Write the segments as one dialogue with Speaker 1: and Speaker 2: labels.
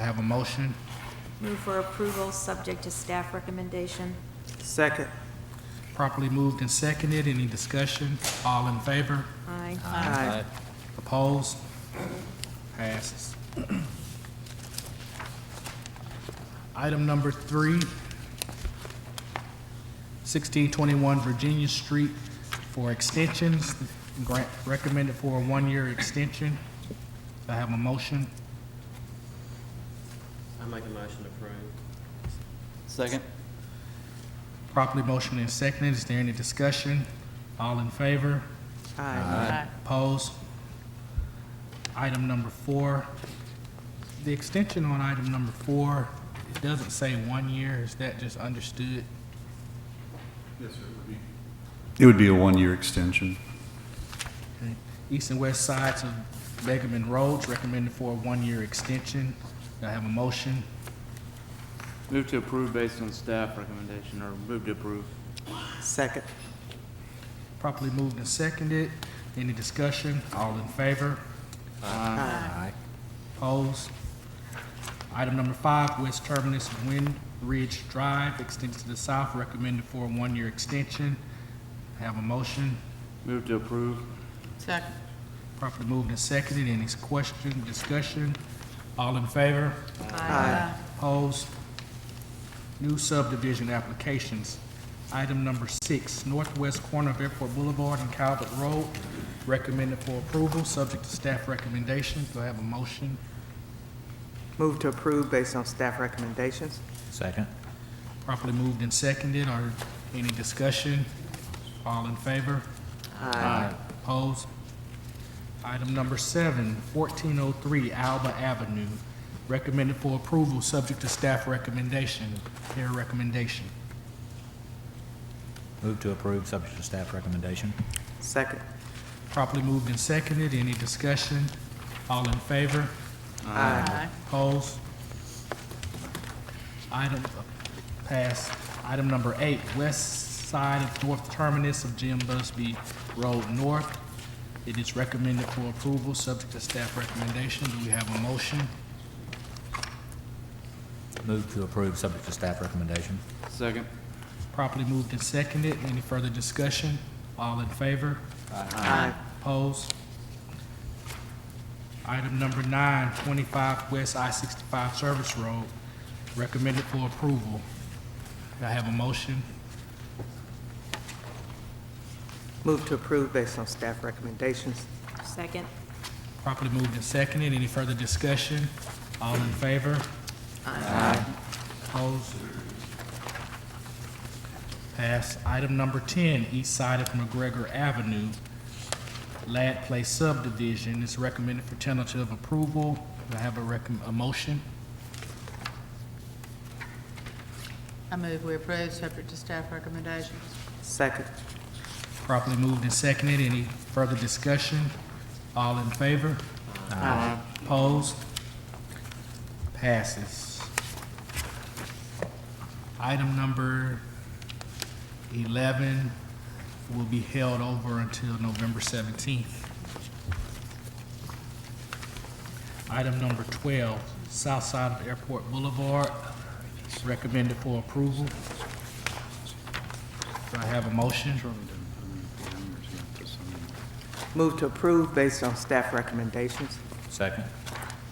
Speaker 1: have a motion?
Speaker 2: Move for approval, subject to staff recommendation.
Speaker 3: Second.
Speaker 1: Properly moved and seconded. Any discussion? All in favor?
Speaker 2: Aye.
Speaker 3: Aye.
Speaker 1: Opposed? Passes. Item number three, 1621 Virginia Street for extensions, grant recommended for a one-year extension. Do I have a motion?
Speaker 4: I make a motion to approve.
Speaker 5: Second.
Speaker 1: Properly motion and seconded. Is there any discussion? All in favor?
Speaker 3: Aye.
Speaker 1: Opposed? Item number four, the extension on item number four, it doesn't say one year, is that just understood?
Speaker 6: It would be a one-year extension.
Speaker 1: Okay. East and west sides of Begerman Roads recommended for a one-year extension. Do I have a motion?
Speaker 5: Move to approve based on staff recommendation, or move to approve.
Speaker 3: Second.
Speaker 1: Properly moved and seconded. Any discussion? All in favor?
Speaker 3: Aye.
Speaker 1: Opposed? Item number five, West Terminus Wind Ridge Drive extends to the south, recommended for a one-year extension. Have a motion?
Speaker 5: Move to approve.
Speaker 7: Second.
Speaker 1: Properly moved and seconded. Any question, discussion? All in favor?
Speaker 3: Aye.
Speaker 1: Opposed? New subdivision applications. Item number six, northwest corner of Airport Boulevard and Calvert Road, recommended for approval, subject to staff recommendations. Do I have a motion?
Speaker 3: Move to approve based on staff recommendations.
Speaker 8: Second.
Speaker 1: Properly moved and seconded. Are any discussion? All in favor?
Speaker 3: Aye.
Speaker 1: Opposed? Item number seven, 1403 Alba Avenue, recommended for approval, subject to staff recommendation. Chair recommendation.
Speaker 8: Move to approve, subject to staff recommendation.
Speaker 3: Second.
Speaker 1: Properly moved and seconded. Any discussion? All in favor?
Speaker 3: Aye.
Speaker 1: Opposed? Item, pass. Item number eight, west side of north terminus of Jim Busby Road North. It is recommended for approval, subject to staff recommendation. Do we have a motion?
Speaker 8: Move to approve, subject to staff recommendation.
Speaker 5: Second.
Speaker 1: Properly moved and seconded. Any further discussion? All in favor?
Speaker 3: Aye.
Speaker 1: Opposed? Item number nine, 25 West I-65 Service Road, recommended for approval. Do I have a motion?
Speaker 3: Move to approve based on staff recommendations.
Speaker 2: Second.
Speaker 1: Properly moved and seconded. Any further discussion? All in favor? Opposed? Pass. Item number 10, east side of McGregor Avenue, Lad Place subdivision is recommended for tentative approval. Do I have a recom, a motion?
Speaker 7: I move we approve, subject to staff recommendations.
Speaker 3: Second.
Speaker 1: Properly moved and seconded. Any further discussion? All in favor? Opposed? Passes. Item number 11 will be held over until November 17th. Item number 12, south side of Airport Boulevard, recommended for approval. Do I have a motion?
Speaker 3: Move to approve based on staff recommendations.
Speaker 8: Second.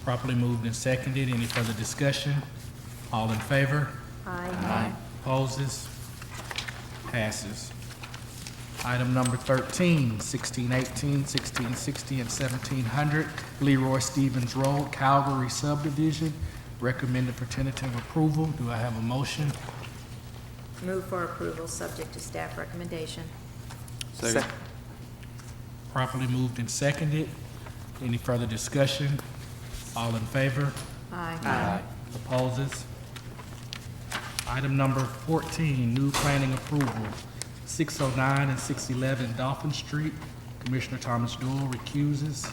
Speaker 1: Properly moved and seconded. Any further discussion? All in favor?
Speaker 2: Aye.
Speaker 1: Opposes? Passes. Item number 13, 1618, 1660, and 1700 Leroy Stevens Road, Calgary subdivision, recommended for tentative approval. Do I have a motion?
Speaker 2: Move for approval, subject to staff recommendation.
Speaker 5: Second.
Speaker 3: Sec-
Speaker 1: Properly moved and seconded. Any further discussion? All in favor?
Speaker 2: Aye.
Speaker 1: Opposes? Item number 14, new planning approval, 609 and 611 Dolphin Street. Commissioner Thomas Doyle recuses.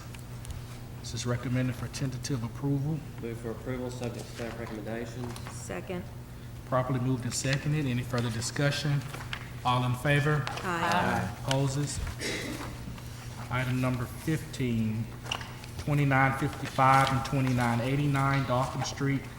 Speaker 1: This is recommended for tentative approval.
Speaker 4: Move for approval, subject to staff recommendations.
Speaker 2: Second.
Speaker 1: Properly moved and seconded. Any further discussion? All in favor?
Speaker 2: Aye.
Speaker 1: Opposes? Item number 15, 2955 and 2989 Dolphin Street.